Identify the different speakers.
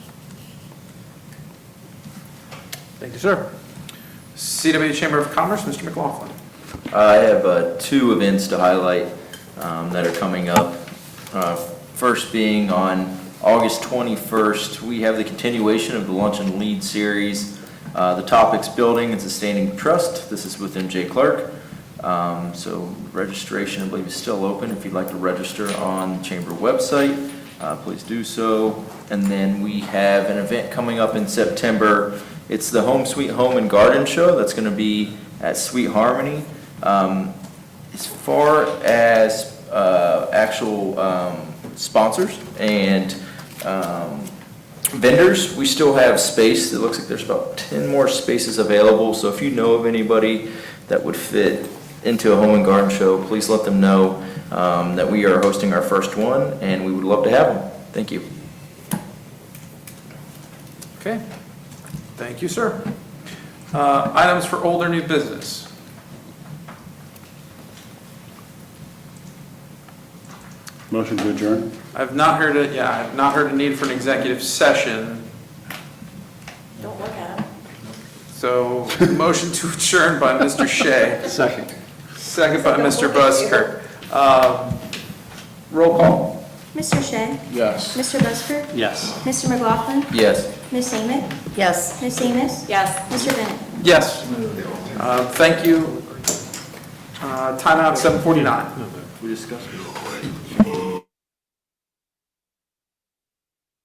Speaker 1: Thank you, sir. CW Chamber of Commerce, Mr. McLaughlin.
Speaker 2: I have uh, two events to highlight um, that are coming up. Uh, First being on August 21st, we have the continuation of the Lunch and Lead Series. Uh, The topic's Building and Sustaining Trust. This is with MJ Clark. Um, So registration, I believe, is still open. If you'd like to register on the Chamber website, uh, please do so. And then we have an event coming up in September. It's the Home Sweet Home and Garden Show. That's going to be at Sweet Harmony. Um, As far as uh, actual um, sponsors and um, vendors, we still have space. It looks like there's about 10 more spaces available. So if you know of anybody that would fit into a home and garden show, please let them know um, that we are hosting our first one and we would love to have them. Thank you.
Speaker 1: Okay. Thank you, sir. Uh, Items for older new business.
Speaker 3: Motion to adjourn.
Speaker 1: I've not heard it, yeah, I've not heard a need for an executive session,
Speaker 4: Don't look at him.
Speaker 1: so motion to adjourn by Mr. Shea,
Speaker 3: Second.
Speaker 1: second by Mr. Busker. Um, Roll call.
Speaker 5: Mr. Shea?
Speaker 3: Yes.
Speaker 5: Mr. Busker?
Speaker 3: Yes.
Speaker 5: Mr. McLaughlin?
Speaker 2: Yes.
Speaker 5: Ms. Amick?
Speaker 4: Yes.
Speaker 5: Ms. Amos?
Speaker 4: Yes.
Speaker 5: Mr. Bennett?
Speaker 1: Yes. Uh, Thank you. Uh, Timeout 7:49.
Speaker 2: We discussed.